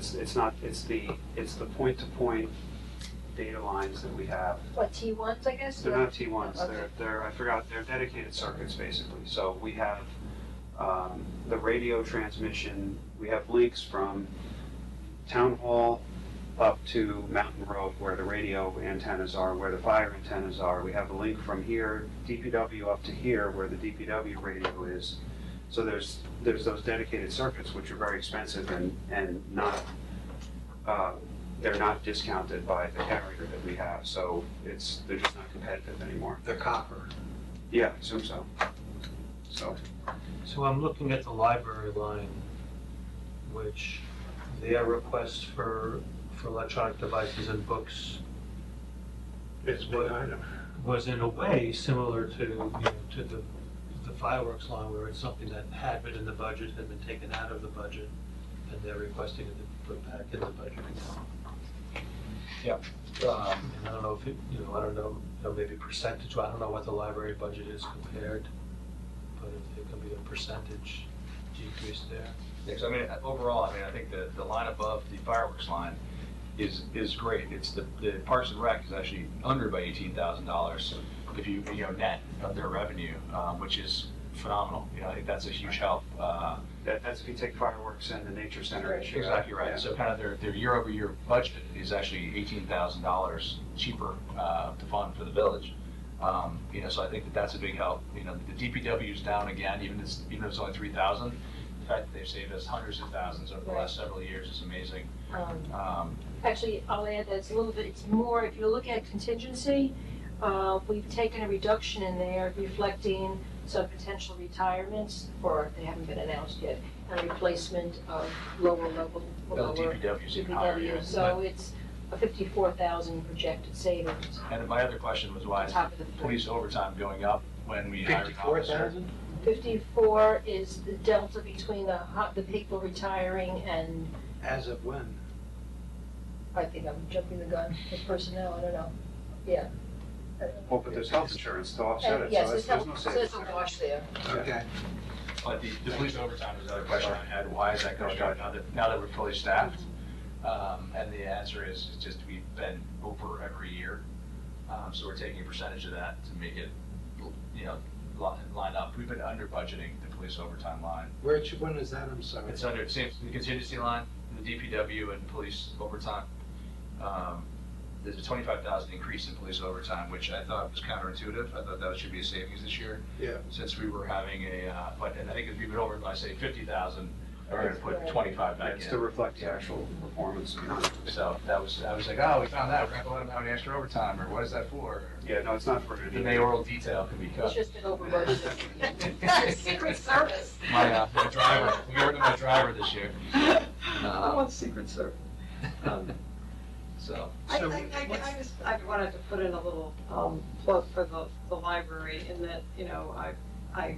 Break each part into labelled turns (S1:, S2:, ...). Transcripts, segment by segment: S1: it's not, it's the, it's the point-to-point data lines that we have.
S2: What, T ones, I guess?
S1: They're not T ones,
S2: Okay.
S1: they're, they're, I forgot, they're dedicated circuits basically. So we have, um, the radio transmission, we have links from town hall up to Mountain Road where the radio antennas are, where the fire antennas are. We have a link from here, DPW up to here where the DPW radio is. So there's, there's those dedicated circuits which are very expensive and, and not, uh, they're not discounted by the carrier that we have, so it's, they're just not competitive anymore.
S3: They're copper.
S1: Yeah, I assume so. So,
S4: So I'm looking at the library line, which their requests for, for electronic devices and books
S3: It's a big item.
S4: was in a way similar to, you know, to the, the fireworks line where it's something that had been in the budget, had been taken out of the budget, and they're requesting it to be put back in the budget account.
S5: Um,
S4: And I don't know if it, you know, I don't know, you know, maybe percentage, I don't know what the library budget is compared, but if there can be a percentage decrease there.
S5: Yeah, so I mean, overall, I mean, I think the, the line above the fireworks line is, is great. It's the, the Parks and Rec is actually under by eighteen thousand dollars if you, you know, net of their revenue, um, which is phenomenal. You know, I think that's a huge help. Uh,
S1: that, that's if you take fireworks and the nature center issue.
S5: exactly
S1: Yeah.
S5: right. So kind of their, their year-over-year budget is actually eighteen thousand dollars cheaper, uh, to fund for the village. Um, you know, so I think that that's a big help. You know, the DPW is down again, even if, even though it's only three thousand. The fact that they've saved us hundreds of thousands over the last several years is amazing.
S2: Um,
S5: Um,
S2: Actually, I'll add that it's a little bit, it's more, if you're looking at contingency, uh, we've taken a reduction in there reflecting some potential retirements, or they haven't been announced yet, and replacement of lower level,
S5: well,
S2: lower
S5: the DPW is even higher. yeah.
S2: DPW. So it's a fifty-four thousand projected savings
S5: But- And my other question was why
S2: on
S5: is
S2: top of the three.
S5: police overtime going up when we hire an
S3: Fifty-four
S5: officer?
S3: thousand?
S2: Fifty-four is the delta between the, ho- the people retiring and,
S3: As of when?
S2: I think I'm jumping the gun, the personnel, I don't know, yeah. Uh,
S1: Well, but there's health insurance to offset
S2: And
S1: it, so
S2: yes,
S1: it's-
S2: it's,
S1: there's no
S2: not- so
S1: savings.
S2: it's a wash there.
S3: Okay.
S5: But the, the police overtime was another question I had, why is that going up now that, now that we're fully staffed? Um, and the answer is, it's just we've been over every year. Um, so we're taking a percentage of that to make it, you know, li- line up. We've been under budgeting the police overtime line.
S3: Which one is that? I'm sorry.
S5: It's under, same, the contingency line, the DPW and police overtime. Um, There's a twenty-five thousand increase in police overtime, which I thought was counterintuitive. I thought that should be a savings this year.
S3: Yeah.
S5: Since we were having a, uh, but, and I think if we went over by, say, fifty thousand, we're gonna put
S2: Right.
S5: twenty-five
S1: Yeah,
S5: back
S1: It's to
S5: in.
S1: reflect the actual performance.
S5: So that was, I was like, oh, we found that, we're not gonna let them have an extra overtime, or what is that for?
S1: Yeah, no, it's not for
S5: The mayoral detail can be
S2: It's
S5: cut.
S2: just been over budgeted.
S6: Secret Service.
S5: My, uh, my driver, we got rid of my driver this year.
S6: I
S5: Uh,
S6: want Secret Service.
S2: Um,
S5: So,
S6: I,
S3: So
S6: I, I
S3: what's-
S6: I just, I wanted to put in a little, um, plug for the, the library in that, you know, I, I,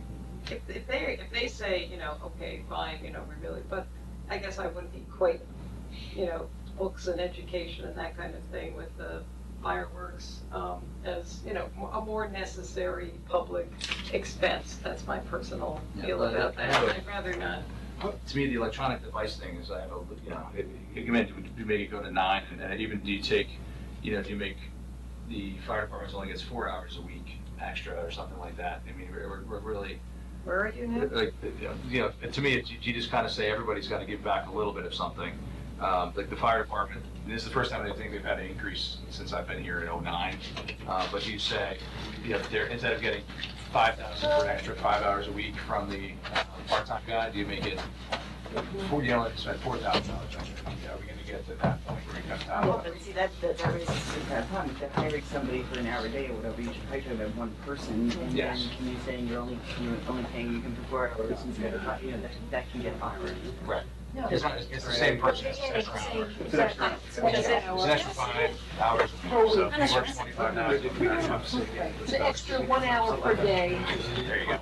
S6: if, if they, if they say, you know, okay, fine, you know, we really, but I guess I wouldn't equate, you know, books and education and that kind of thing with the fireworks, um, as, you know, mo- a more necessary public expense. That's my personal
S5: Yeah,
S6: feel
S5: but I-
S6: about
S5: I
S6: that.
S5: have a-
S6: I'd rather not.
S5: to me, the electronic device thing is, I have a, you know, it- it- you meant, you make it go to nine, and then even do you take, you know, do you make, the fire department only gets four hours a week extra or something like that? I mean, we're, we're- we're really,
S6: Where are you now?
S5: like, you know, to me, it's- you just kind of say everybody's got to give back a little bit of something. Um, Like the fire department, and this is the first time I think they've had an increase since I've been here in '09. Uh, But you say, you know, they're, instead of getting five thousand for an extra five hours a week from the uh, part-time guy, do you make it four, you only spend four thousand dollars extra? Yeah, Are we gonna get to that point where you cut
S7: Well,
S5: out?
S7: Oh, but see, that, that, that raises a bad problem, if they're hiring somebody for an hour a day or whatever, you should hire them at one person, and then
S5: Yes.
S7: you're saying you're only, you're only paying, you can do four hours instead of, five, you know, that, that can get awkward.
S2: No,
S5: It's not- it's the same person. It's an extra hour.
S1: It's an extra, it's an extra.
S5: It's an extra five hours. a week, So if you work
S1: But
S5: twenty-five
S1: no,
S5: hours.
S1: it didn't matter. I'm saying, yeah,
S2: It's an extra one hour per day.
S5: There you go.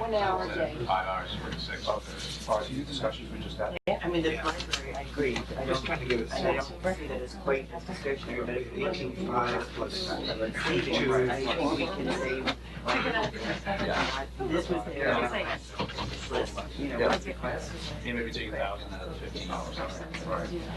S2: One hour a day.
S5: Five hours, forty-six.
S1: As far as these discussions we just had.
S7: I mean, the
S3: Yeah.
S7: library, I agree, I
S3: I'm just trying
S7: don't,
S3: to give it a
S7: and I
S3: sense.
S7: don't agree that it's quite as discretionary, but if we're looking
S3: Eighteen
S7: for
S3: five
S7: plus
S3: plus
S7: savings,
S3: two.
S7: I think we can save, like, this was their, you know,
S5: Yeah.
S7: request.
S5: He may be taking a thousand out of the fifteen dollars.